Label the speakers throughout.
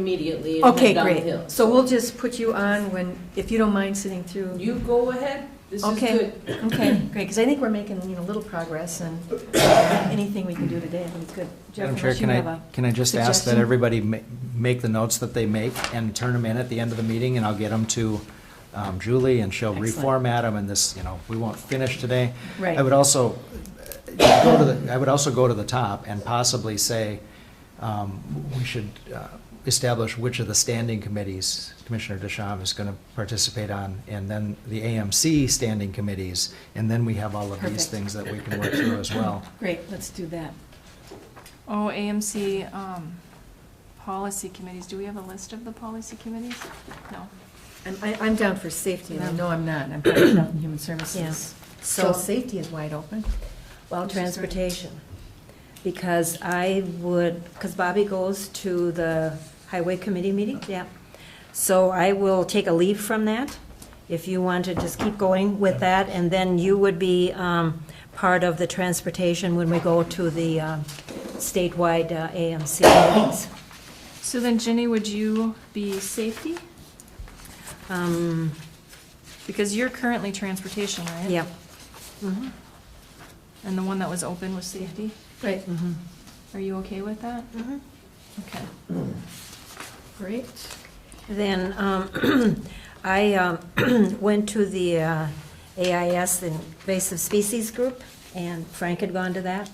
Speaker 1: immediately and
Speaker 2: Okay,
Speaker 1: head down the hill.
Speaker 2: great. So we'll just put you on when, if you don't mind sitting through.
Speaker 1: You go ahead, this is
Speaker 2: Okay.
Speaker 1: good.
Speaker 2: Okay, great, because I think we're making, you know, little progress and uh, anything we can do today, I think it's good. Jeff,
Speaker 3: Madam Chair,
Speaker 2: unless you
Speaker 3: can
Speaker 2: have
Speaker 3: I,
Speaker 2: a-
Speaker 3: can I just ask that
Speaker 2: suggestion?
Speaker 3: everybody ma- make the notes that they make and turn them in at the end of the meeting, and I'll get them to um, Julie, and she'll
Speaker 2: Excellent.
Speaker 3: reformat them, and this, you know, we won't finish today.
Speaker 2: Right.
Speaker 3: I would also, uh, go to the, I would also go to the top and possibly say, um, we should uh, establish which of the standing committees Commissioner Deschamps is going to participate on, and then the AMC standing committees, and then we have all of these
Speaker 2: Perfect.
Speaker 3: things that we can work through as well.
Speaker 2: Great, let's do that.
Speaker 4: Oh, AMC, um, policy committees, do we have a list of the policy committees? No.
Speaker 2: I'm, I- I'm down for safety, and I
Speaker 4: No.
Speaker 2: know I'm not, I'm probably down in human services.
Speaker 5: Yes.
Speaker 2: So
Speaker 5: So-
Speaker 2: safety is wide open.
Speaker 5: Well,
Speaker 2: Which is great.
Speaker 5: transportation, because I would, because Bobby goes to the highway committee meeting, yeah. So I will take a leave from that, if you want to just keep going with that, and then you would be um, part of the transportation when we go to the um, statewide uh, AMC meetings.
Speaker 4: So then Jenny, would you be safety?
Speaker 5: Um,
Speaker 4: Because you're currently transportation, right?
Speaker 5: Yeah. Mhm.
Speaker 4: And the one that was open was safety?
Speaker 2: Right,
Speaker 4: Mm-hmm.
Speaker 5: Mhm.
Speaker 4: Are you okay with that?
Speaker 5: Mhm.
Speaker 4: Okay.
Speaker 2: great.
Speaker 5: Then um, I um, went to the uh, AIS invasive species group, and Frank had gone to that,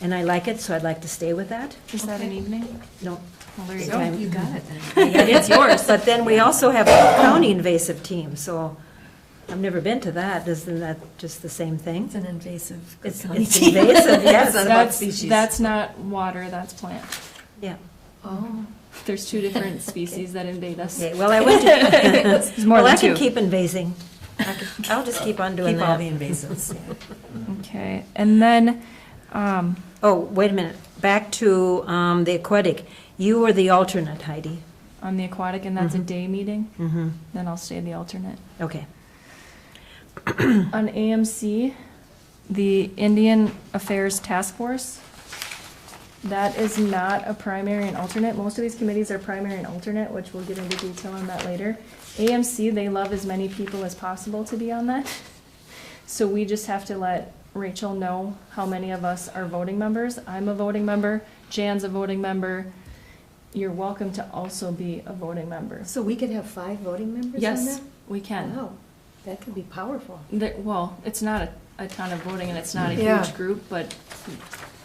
Speaker 5: and I like it, so I'd like to stay with that.
Speaker 4: Is that an evening?
Speaker 5: No,
Speaker 4: Well, there you
Speaker 5: So
Speaker 4: go.
Speaker 5: I'm-
Speaker 2: You got it then.
Speaker 4: It's yours.
Speaker 5: But then we also have a county invasive team, so I've never been to that. Isn't that just the same thing?
Speaker 2: It's an invasive.
Speaker 5: It's it's invasive, yes.
Speaker 4: That's, that's not water, that's plant.
Speaker 5: Yeah.
Speaker 2: Oh,
Speaker 4: There's two different species that invade us.
Speaker 5: Okay, well, I went to,
Speaker 4: There's more
Speaker 5: well, I
Speaker 4: than
Speaker 5: can
Speaker 4: two.
Speaker 5: keep invasing. I can- I'll just keep on doing
Speaker 2: keep all the
Speaker 5: that.
Speaker 2: invasives.
Speaker 4: Okay, and then, um,
Speaker 5: Oh, wait a minute, back to um, the aquatic. You were the alternate, Heidi.
Speaker 4: on the aquatic, and that's a day meeting,
Speaker 5: Mm-hmm.
Speaker 4: then I'll stay the alternate.
Speaker 5: Okay.
Speaker 4: On AMC, the Indian Affairs Task Force, that is not a primary and alternate. Most of these committees are primary and alternate, which we'll get into detail on that later. AMC, they love as many people as possible to be on that. So we just have to let Rachel know how many of us are voting members. I'm a voting member, Jan's a voting member. You're welcome to also be a voting member.
Speaker 2: So we could have five voting members on that?
Speaker 4: Yes, we can.
Speaker 2: Wow, that could be powerful.
Speaker 4: There, well, it's not a, a ton of voting and it's not a
Speaker 2: Yeah.
Speaker 4: huge group, but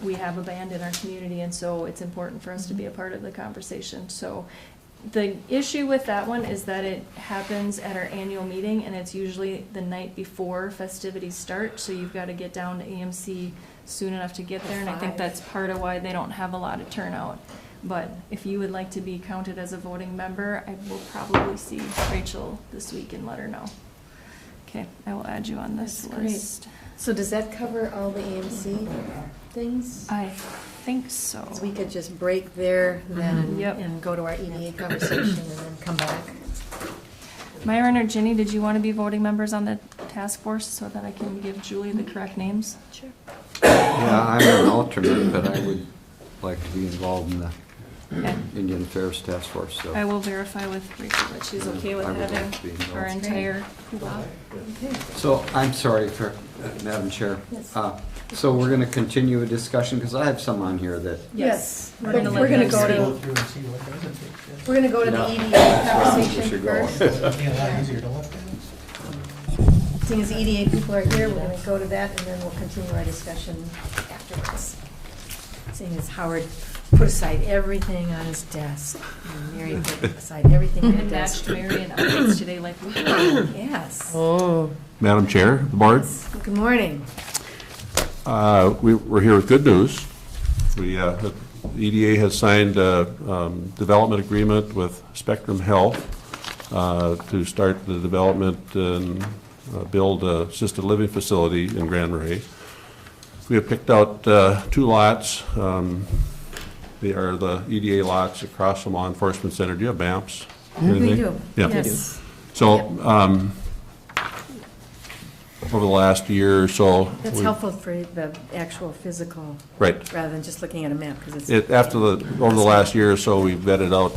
Speaker 4: we have a band in our community and so it's important for us to be a part of the conversation, so. The issue with that one is that it happens at our annual meeting and it's usually the night before festivities start, so you've gotta get down to AMC soon enough to get there, and I think
Speaker 2: Five.
Speaker 4: that's part of why they don't have a lot of turnout. But if you would like to be counted as a voting member, I will probably see Rachel this week and let her know. Okay, I will add you on this
Speaker 2: That's great.
Speaker 4: list.
Speaker 2: So does that cover all the AMC things?
Speaker 4: I think so.
Speaker 2: 'Cause we could just break there then and-
Speaker 4: Mm-hmm. Yep.
Speaker 2: and go to our EDA conversation and then come back.
Speaker 4: Myron or Ginny, did you want to be voting members on the task force so that I can give Julie the correct names?
Speaker 2: Sure.
Speaker 6: Yeah, I'm an alternate, but I would like to be involved in the
Speaker 4: Okay.
Speaker 6: Indian Affairs Task Force, so.
Speaker 4: I will verify with Rachel that she's okay with
Speaker 6: I would like to
Speaker 4: having
Speaker 6: be involved.
Speaker 4: our entire hoopla.
Speaker 2: Okay.
Speaker 6: So I'm sorry for, uh, Madam Chair.
Speaker 2: Yes.
Speaker 6: Uh, So we're going to continue a discussion, because I have some on here that,
Speaker 4: Yes.
Speaker 2: But
Speaker 4: We're gonna
Speaker 2: We're
Speaker 4: let
Speaker 2: gonna
Speaker 4: them
Speaker 2: go
Speaker 4: speak.
Speaker 2: to,
Speaker 7: through and see what doesn't fit.
Speaker 2: we're gonna go to the E
Speaker 6: No.
Speaker 2: EDA
Speaker 6: we
Speaker 2: conversation
Speaker 6: should go.
Speaker 2: first.
Speaker 7: It'd be a lot easier to look at.
Speaker 2: Seeing as the EDA people are here, we're gonna go to that and then we'll continue our discussion afterwards. Seeing as Howard put aside everything on his desk, and Mary put aside everything on her
Speaker 4: And
Speaker 2: desk.
Speaker 4: matched Mary and updates today like we
Speaker 2: Yes.
Speaker 8: Madam Chair, the board,
Speaker 2: Good morning.
Speaker 8: uh, we- we're here with good news. We, uh, the EDA has signed a um, development agreement with Spectrum Health uh, to start the development and uh, build a assisted living facility in Grand Marais. We have picked out uh, two lots. Um, They are the EDA lots across from Law Enforcement Center. Do you have maps?
Speaker 2: We
Speaker 8: Anything?
Speaker 2: do.
Speaker 8: Yeah.
Speaker 2: Yes.
Speaker 8: So, um, over the last year or so.
Speaker 2: That's
Speaker 8: we-
Speaker 2: helpful for the actual physical,
Speaker 8: Right.
Speaker 2: rather than just looking at a map, because it's.
Speaker 8: It, after the, over the last year or so, we vetted out